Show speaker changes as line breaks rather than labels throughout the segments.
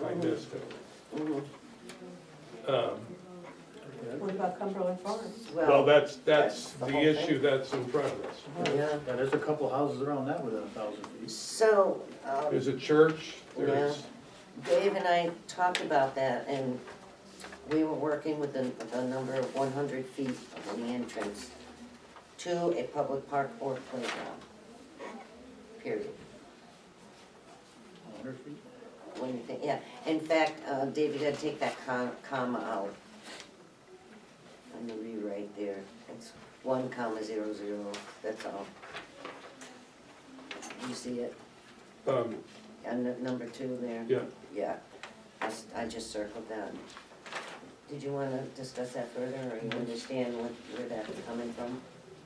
like this.
Mhm.
Um,
What about Cumberland Farms?
Well,
Well,
that's, that's
that's the
the
whole thing.
issue that's in front of us.
yeah,
Yeah, there's a couple houses around that within a thousand feet.
so, um,
There's a church, there's,
Dave and I talked about that, and we were working with the, the number of one hundred feet from the entrance to a public park or playground, period.
A hundred feet?
What do you think, yeah, in fact, uh, Dave, you gotta take that com- comma out. On the rewrite there, it's one comma zero zero, that's all. You see it,
um,
on the number two there?
yeah,
Yeah, I, s- I just circled that. Did you wanna discuss that further, or you understand what, where that's coming from?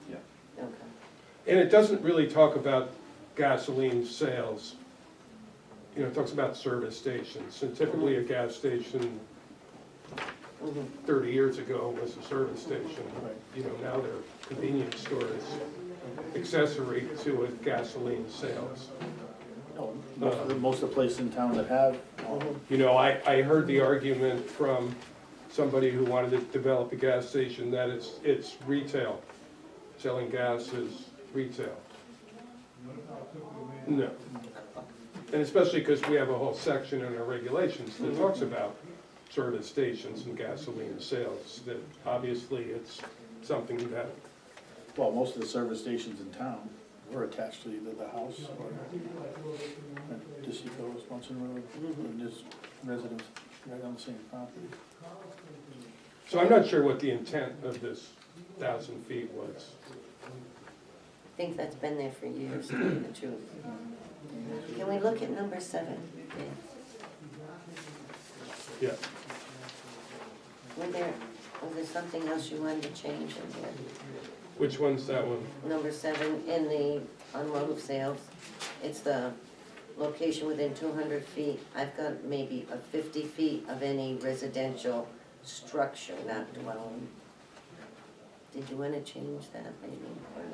Yeah.
Okay,
and it doesn't really talk about gasoline sales. You know, it talks about service stations, and typically
Mm-hmm.
a gas station
mhm,
thirty years ago was a service station.
Right.
You know, now they're convenience stores, accessory to a gasoline sales.
No, most of the, most of the places in town that have,
You know, I, I heard the argument from somebody who wanted to develop a gas station that it's, it's retail. Selling gas is retail. No. And especially because we have a whole section in our regulations that talks about service stations and gasoline sales, that obviously it's something that,
well, most of the service stations in town were attached to either the house or the Seco Wisconsin Road,
Mm-hmm.
and just residents right on the same property.
so I'm not sure what the intent of this thousand feet was.
I think that's been there for years, to tell you the truth. Can we look at number seven?
Yeah,
Were there, was there something else you wanted to change in there?
which one's that one?
number seven, in the unload of sales, it's the location within two hundred feet. I've got maybe a fifty feet of any residential structure, not dwelling. Did you wanna change that maybe, or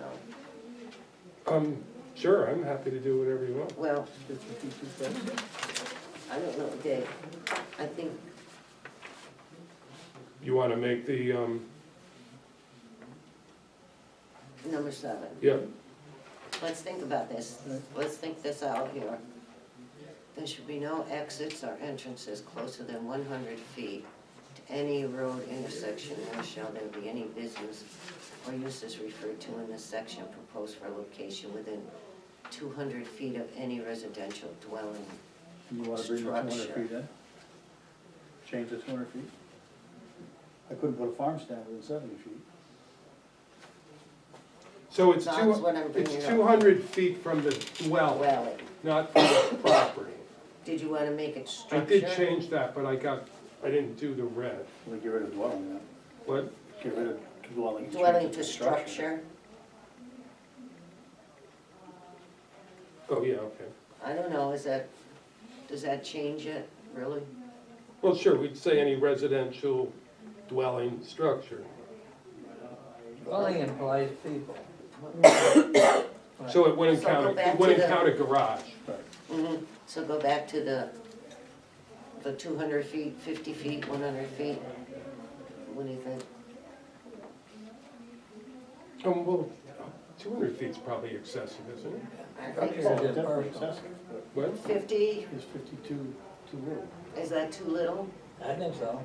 no?
Um, sure, I'm happy to do whatever you want.
Well,
Fifty-two feet,
I don't know, Dave, I think,
You want to make the, um,
number seven,
yeah,
let's think about this, let's think this out here. There should be no exits or entrances closer than one hundred feet to any road intersection, nor shall there be any business or uses referred to in this section proposed for location within two hundred feet of any residential dwelling.
you wanna bring the two hundred
Structure.
feet in? Change the two hundred feet? I couldn't put a farm stand within seventy feet.
so it's
That's
two,
what I'm bringing
it's
up.
two hundred feet from the well,
Dwelling,
not from the property.
did you wanna make it
I
structure?
did change that, but I got, I didn't do the red,
We get rid of dwelling then,
but,
get rid of dwelling. and change
Dwelling
it
to structure,
oh, yeah, okay.
I don't know, is that, does that change it, really?
Well, sure, we'd say any residential dwelling structure.
Dwelling implies people.
So it wouldn't
So go
count,
back
it
to
wouldn't
the-
count a garage.
Mhm. So go back to the, the two hundred feet, fifty feet, one hundred feet. What do you think?
Um, well, two hundred feet's probably excessive, isn't it?
I think
Probably
Well,
so.
is
definitely
personal.
excessive, but
What?
Fifty,
is fifty-two too little?
is that too little?
I think so.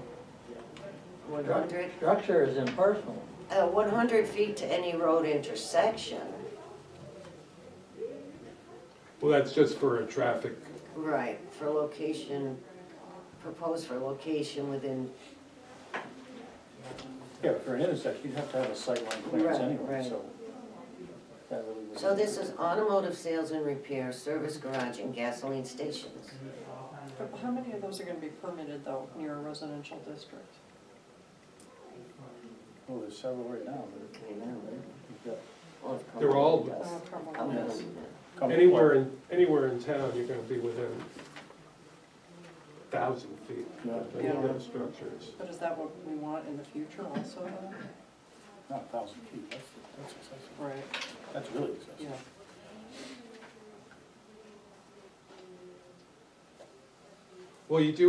One hundred?
Structure is impersonal.
Uh, one hundred feet to any road intersection.
Well, that's just for a traffic,
Right, for location, proposed for location within,
Yeah, but for an intersection, you'd have to have a sightline clearance
Right,
anyway,
right.
so. that really wouldn't-
so this is automotive sales and repair, service garage and gasoline stations.
Mm-hmm.
But How many of those are gonna be permitted though, near a residential district?
Well, there's several right now, but
I know.
you've got.
Well, if
They're all-
Cumberland
Oh,
does.
probably.
Cumberland does.
come-
anywhere in, anywhere in town, you're gonna be within thousand feet of any of those structures.
But is that what we want in the future also then?
Not a thousand feet, that's, that's excessive,
Right,
that's really
yeah.
excessive.
Well, you do